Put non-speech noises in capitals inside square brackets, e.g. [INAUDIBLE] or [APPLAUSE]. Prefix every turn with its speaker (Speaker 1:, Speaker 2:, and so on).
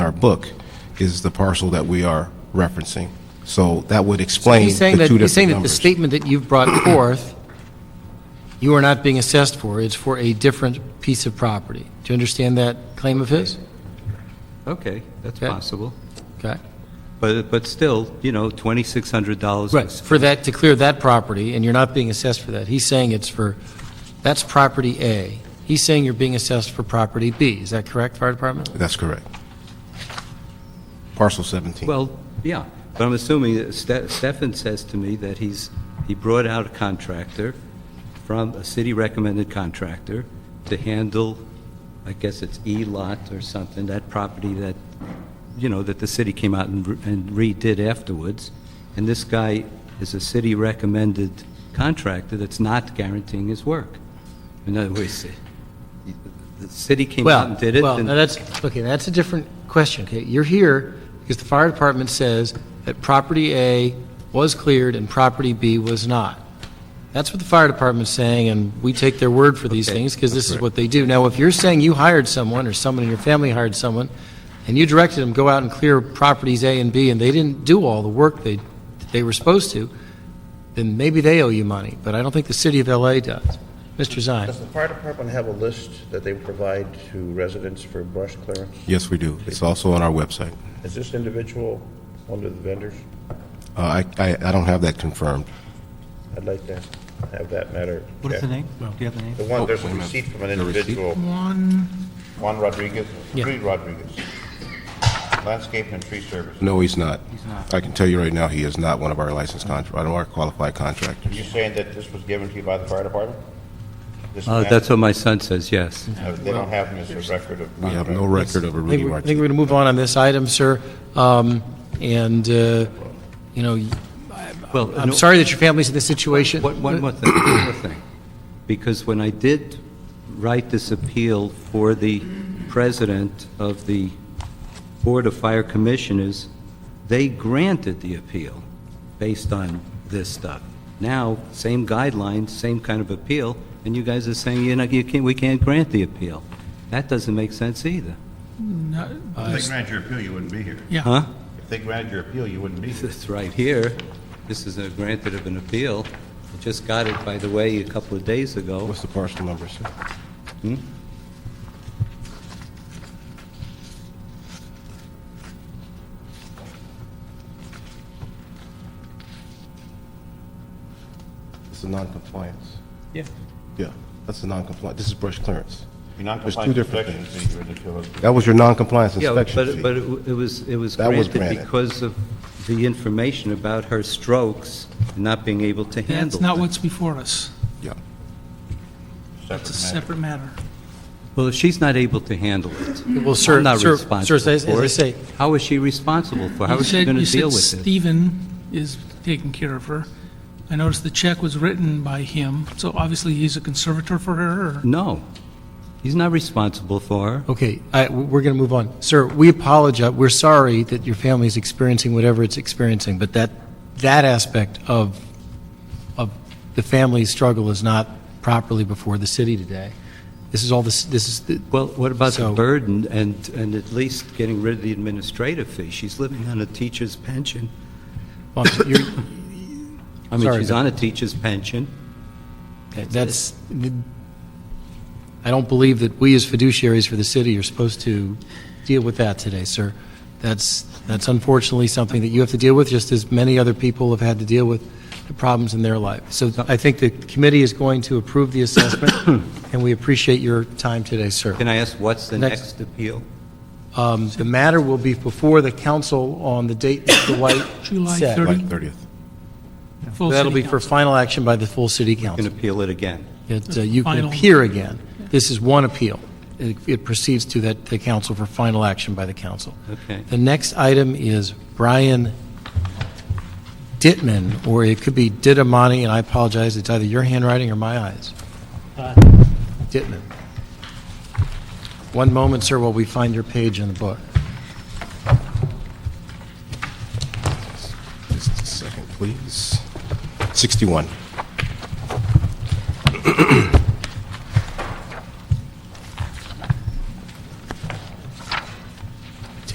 Speaker 1: our book is the parcel that we are referencing. So that would explain
Speaker 2: He's saying
Speaker 1: the
Speaker 2: that,
Speaker 1: two
Speaker 2: he's saying
Speaker 1: different
Speaker 2: that the
Speaker 1: numbers.
Speaker 2: statement that you've brought [COUGHS] forth, you are not being assessed for, it's for a different piece of property. Do you understand that claim of his?
Speaker 3: Okay, that's
Speaker 2: Okay.
Speaker 3: possible.
Speaker 2: Okay.
Speaker 3: But, but still, you know, $2,600.
Speaker 2: Right,
Speaker 3: was-
Speaker 2: for that, to clear that property, and you're not being assessed for that. He's saying it's for, that's property A. He's saying you're being assessed for property B. Is that correct, Fire Department?
Speaker 1: That's correct. Parcel 17.
Speaker 3: Well, yeah, but I'm assuming that Ste- Stefan says to me that he's, he brought out a contractor from, a city-recommended contractor to handle, I guess it's E-Lot or something, that property that, you know, that the city came out and re- and redid afterwards. And this guy is a city-recommended contractor that's not guaranteeing his work. In other words, the- the city came out
Speaker 2: Well,
Speaker 3: and did it,
Speaker 2: well,
Speaker 3: and-
Speaker 2: now that's, okay, that's a different question, okay? You're here because the fire department says that property A was cleared and property B was not. That's what the fire department's saying, and we take their word for these
Speaker 3: Okay,
Speaker 2: things because this is what they do. Now, if you're saying you hired someone, or someone in your family hired someone, and you directed them, go out and clear properties A and B, and they didn't do all the work they, they were supposed to, then maybe they owe you money, but I don't think the city of LA does. Mr. Zine?
Speaker 4: Does the fire department have a list that they provide to residents for brush clearance?
Speaker 1: Yes, we do. It's also on our website.
Speaker 4: Is this individual one of the vendors?
Speaker 1: Uh, I I I don't have that confirmed.
Speaker 4: I'd like to have that matter.
Speaker 5: What is the
Speaker 4: checked.
Speaker 5: name? Do you have the name?
Speaker 4: The one, there's
Speaker 1: Oh,
Speaker 4: a
Speaker 1: wait a minute.
Speaker 4: receipt from an
Speaker 1: The receipt?
Speaker 4: individual. Juan Rodriguez,
Speaker 2: Yeah.
Speaker 4: Reed Rodriguez. Landscape and tree service.
Speaker 1: No, he's not. I can tell you right now, he is not one of our licensed contractors, one of our qualified contractors.
Speaker 4: You're saying that this was given to you by the fire department? This
Speaker 3: Uh,
Speaker 4: man-
Speaker 3: that's what my son says, yes.
Speaker 4: No, They don't have him as a record of.
Speaker 1: We have no record of a Rudy
Speaker 2: I think we- I think
Speaker 1: Martinez.
Speaker 2: we're going to move on on this item, sir. Um, And, uh, you know,
Speaker 3: Well,
Speaker 2: I'm
Speaker 3: no-
Speaker 2: sorry that your family's in this situation.
Speaker 3: One, one more thing, one more thing. Because when I did write this appeal for the president of the Board of Fire Commissioners, they granted the appeal based on this stuff. Now, same guidelines, same kind of appeal, and you guys are saying, you know, you can't, we can't grant the appeal. That doesn't make sense either.
Speaker 4: If they granted your appeal, you wouldn't be here.
Speaker 3: Huh?
Speaker 4: If they granted your appeal, you wouldn't be here.
Speaker 3: It's right here. This is a granted of an appeal. I Just got it, by the way, a couple of days ago.
Speaker 1: What's the parcel number, sir? Hmm? It's a non-compliance.
Speaker 5: Yeah.
Speaker 1: Yeah, that's a non-compliant, this is brush clearance.
Speaker 4: You're not
Speaker 1: There's two
Speaker 4: complying with
Speaker 1: different
Speaker 4: sections,
Speaker 1: things.
Speaker 4: so you wouldn't appeal it.
Speaker 1: That was your non-compliance
Speaker 3: Yeah, but,
Speaker 1: inspection
Speaker 3: but
Speaker 1: fee.
Speaker 3: it w- it was, it was
Speaker 1: That was
Speaker 3: granted
Speaker 1: granted.
Speaker 3: because of the information about her strokes, and not being able to handle.
Speaker 6: That's not
Speaker 3: them.
Speaker 6: what's before us.
Speaker 1: Yeah.
Speaker 6: It's a separate matter.
Speaker 3: Well, if she's not able to handle it,
Speaker 2: Well, sir,
Speaker 3: I'm not
Speaker 2: sir-
Speaker 3: responsible
Speaker 2: Sir, as- as
Speaker 3: for
Speaker 2: I
Speaker 3: it.
Speaker 2: say,
Speaker 3: How is she responsible for, how
Speaker 6: You
Speaker 3: is she
Speaker 6: said-
Speaker 3: going to deal
Speaker 6: You
Speaker 3: with
Speaker 6: said
Speaker 3: it?
Speaker 6: Stephen is taking care of her. I noticed the check was written by him, so obviously he's a conservator for her, or?
Speaker 3: No, he's not responsible for her.
Speaker 2: okay, I- we're going to move on. Sir, we apologize, we're sorry that your family's experiencing whatever it's experiencing, but that, that aspect of, of the family's struggle is not properly before the city today. This is all, this, this is, the-
Speaker 3: Well, what about the
Speaker 2: So-
Speaker 3: burden and, and at least getting rid of the administrative fee? She's living on a teacher's pension.
Speaker 2: well, you're,
Speaker 3: I mean,
Speaker 2: Sorry,
Speaker 3: she's
Speaker 2: but-
Speaker 3: on a teacher's pension.
Speaker 2: That's, I don't believe that we as fiduciaries for the city are supposed to deal with that today, sir. That's, that's unfortunately something that you have to deal with, just as many other people have had to deal with the problems in their life. So I think the committee is going to approve the assessment, and we appreciate your time today, sir.
Speaker 3: Can I ask, what's the
Speaker 2: Next.
Speaker 3: next appeal?
Speaker 2: Um, The matter will be before the council on the date Mr. White
Speaker 6: July
Speaker 2: said.
Speaker 6: 30th.
Speaker 1: Like 30th.
Speaker 6: full
Speaker 2: That'll
Speaker 6: city
Speaker 2: be for
Speaker 6: council?
Speaker 2: final action by the full city council.
Speaker 3: Can appeal it again?
Speaker 2: that uh, you can
Speaker 6: Final.
Speaker 2: appear again. This is one appeal. It it proceeds to that, the council for final action by the council.
Speaker 3: Okay.
Speaker 2: The next item is Brian Dittman, or it could be Didamani, and I apologize, it's either your handwriting or my eyes. Dittman. One moment, sir, while we find your page in the book.
Speaker 1: Just a second, please. 61.